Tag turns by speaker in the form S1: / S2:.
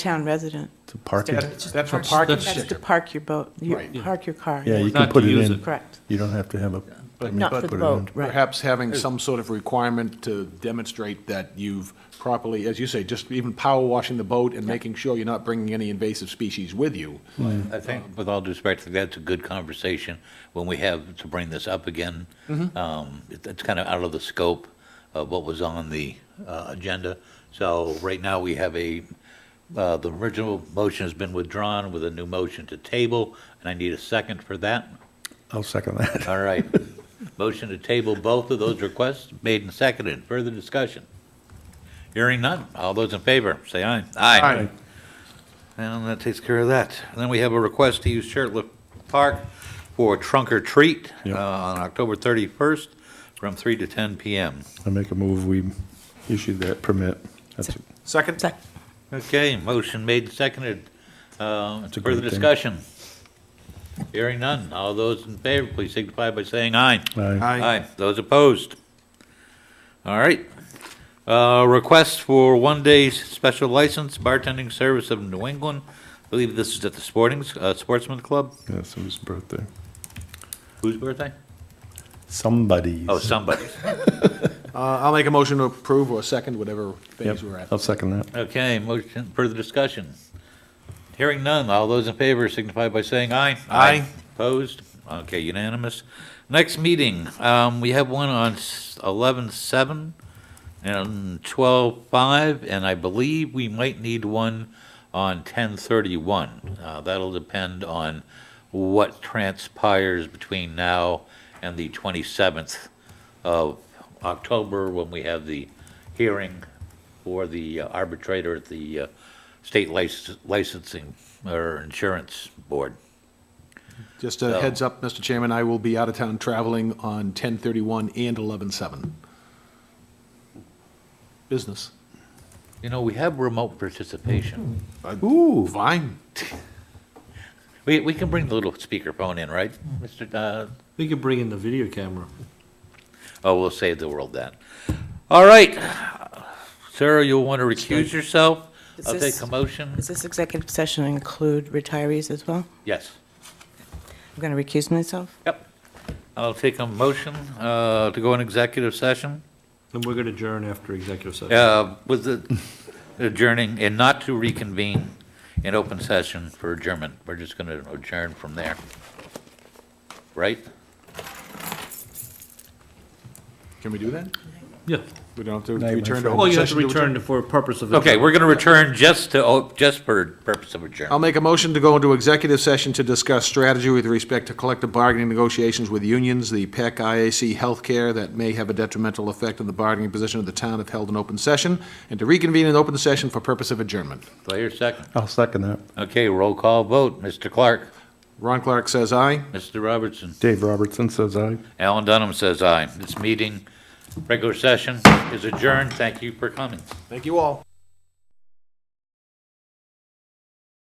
S1: town resident.
S2: to park it.
S3: That's that's what parking
S4: parking
S1: That's to
S3: sticker.
S1: park your boat, you
S3: Right.
S1: park your car.
S2: Yeah, you
S4: Not
S2: can
S4: to
S2: put it
S4: use
S2: in.
S1: Correct.
S2: You don't have to have a. I mean,
S1: Not the
S2: put it
S1: boat,
S2: in.
S1: right.
S3: Perhaps having some sort of requirement to demonstrate that you've properly, as you say, just even power washing the boat and making sure you're not bringing any invasive species with you.
S5: I think, Uh, with all due respect, that's a good conversation when we have to bring this up again. Um, it- It's kind of out of the scope of what was on the uh, agenda. So right now, we have a, uh, the original motion has been withdrawn with a new motion to table, and I need a second for that.
S2: I'll second that.
S5: All right. Motion to table both of those requests, made and seconded. Further discussion? Hearing none. All those in favor, say aye.
S3: Aye.
S5: And that takes care of that. And then we have a request to use Shirtlift Park for trunk or treat uh,
S2: Yep.
S5: on October 31st from 3 to 10 PM.
S2: I make a move, we issue that permit. That's it.
S3: Second?
S1: Sec-
S5: Okay, motion made and seconded.
S2: a
S5: Uh, Further
S2: great thing.
S5: discussion? Hearing none. All those in favor, please signify by saying aye.
S2: Aye.
S3: Aye.
S5: Aye. Those opposed? All right. Uh, Request for one-day special license bartending service of New England. I believe this is at the Sporting, uh, Sportsman Club.
S2: Yes, it was birthday.
S5: Whose birthday?
S2: Somebody's.
S5: Oh, somebody's.
S3: Uh, I'll make a motion to approve or second, whatever
S2: Yep,
S3: phase we're at.
S2: I'll second that.
S5: Okay, motion, further discussion. Hearing none, all those in favor signify by saying aye.
S3: Aye.
S5: Opposed? Okay, unanimous. Next meeting, um, we have one on s- 11/7 and 12/5, and I believe we might need one on 10/31. Uh, that'll depend on what transpires between now and the 27th of October, when we have the hearing for the arbitrator at the uh, state lic- licensing or insurance board.
S3: Just a
S5: So-
S3: heads up, Mr. Chairman, I will be out of town traveling on 10:31 and 11:7. Business.
S5: You know, we have remote
S1: Mm-hmm.
S5: participation.
S3: Ooh. Fine.
S5: We, we can bring the little speakerphone in, right,
S1: Mm-hmm.
S5: Mr. Uh,
S4: We could bring in the video camera.
S5: Oh, we'll save the world that. All right. Sarah, you'll want to recuse yourself.
S1: Is
S5: I'll take
S1: this-
S5: a motion.
S1: Does this executive session include retirees as well?
S5: Yes.
S1: I'm going to recuse myself.
S5: Yep. I'll take a motion uh, to go in executive session
S4: And we're going to adjourn after executive session.
S5: uh, with the adjourning and not to reconvene in open session for adjournment. We're just going to adjourn from there. Right?
S3: Can we do that?
S4: Yeah.
S3: We don't have to
S2: Night, my
S3: return to
S2: friend.
S4: Well,
S3: open
S4: you have to
S3: session?
S4: return for a purpose of.
S5: Okay, we're going to return just to, o- just for purpose of adjournment.
S3: I'll make a motion to go into executive session to discuss strategy with respect to collective bargaining negotiations with unions, the E PEC, IAC, healthcare that may have a detrimental effect on the bargaining position of the town if held in open session, and to reconvene in open session for purpose of adjournment.
S5: Do I hear a second?
S2: I'll second that.
S5: Okay, roll call vote. Mr. Clark,
S3: Ron Clark says aye.
S5: Mr. Robertson.
S2: Dave Robertson says aye.
S5: Alan Dunham says aye. This meeting, regular session is adjourned. Thank you for coming.
S3: Thank you all.